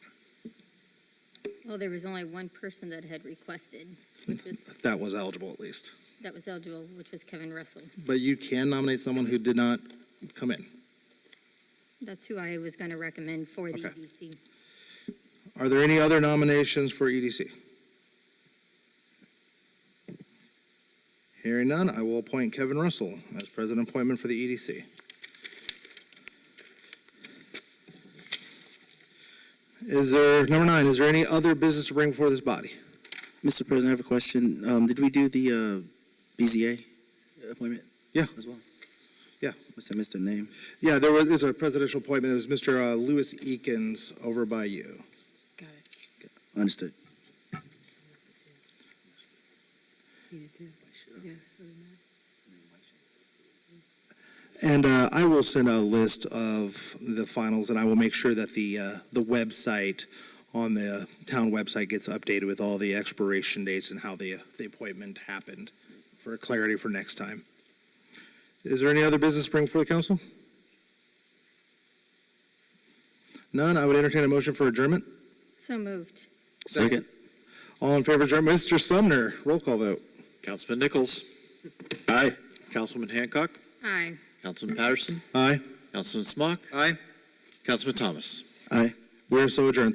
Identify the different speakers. Speaker 1: Well, there was only one person that had requested, which was,
Speaker 2: That was eligible at least.
Speaker 1: that was eligible, which was Kevin Russell.
Speaker 2: But you can nominate someone who did not come in.
Speaker 1: That's who I was going to recommend for the
Speaker 2: Okay.
Speaker 1: EDC.
Speaker 2: Are there any other nominations for E EDC? Hearing none, I will appoint Kevin Russell as president appointment for the E EDC. Is there, number nine, is there any other business to bring before this body?
Speaker 3: Mr. President, I have a question. Um, did we do the, uh, BZA appointment?
Speaker 2: Yeah.
Speaker 3: As well?
Speaker 2: Yeah.
Speaker 3: Must have missed the name.
Speaker 2: Yeah, there was, there's a presidential appointment. It was Mr. uh, Louis Eakins over by you.
Speaker 1: Got it.
Speaker 3: Understood.
Speaker 2: And uh, I will send a list of the finals, and I will make sure that the, uh, the website on the town website gets updated with all the expiration dates and how the, uh, the appointment happened for clarity for next time. Is there any other business to bring before the council? None, I would entertain a motion for adjournment.
Speaker 1: So moved.
Speaker 3: Second.
Speaker 2: All in favor of adjournment, Mr. Sumner, roll call vote.
Speaker 4: Councilman Nichols. Aye. Councilwoman Hancock.
Speaker 1: Aye.
Speaker 4: Councilman Patterson.
Speaker 2: Aye.
Speaker 4: Councilman Smock. Aye. Councilman Thomas.
Speaker 3: Aye.
Speaker 2: We are so adjourned.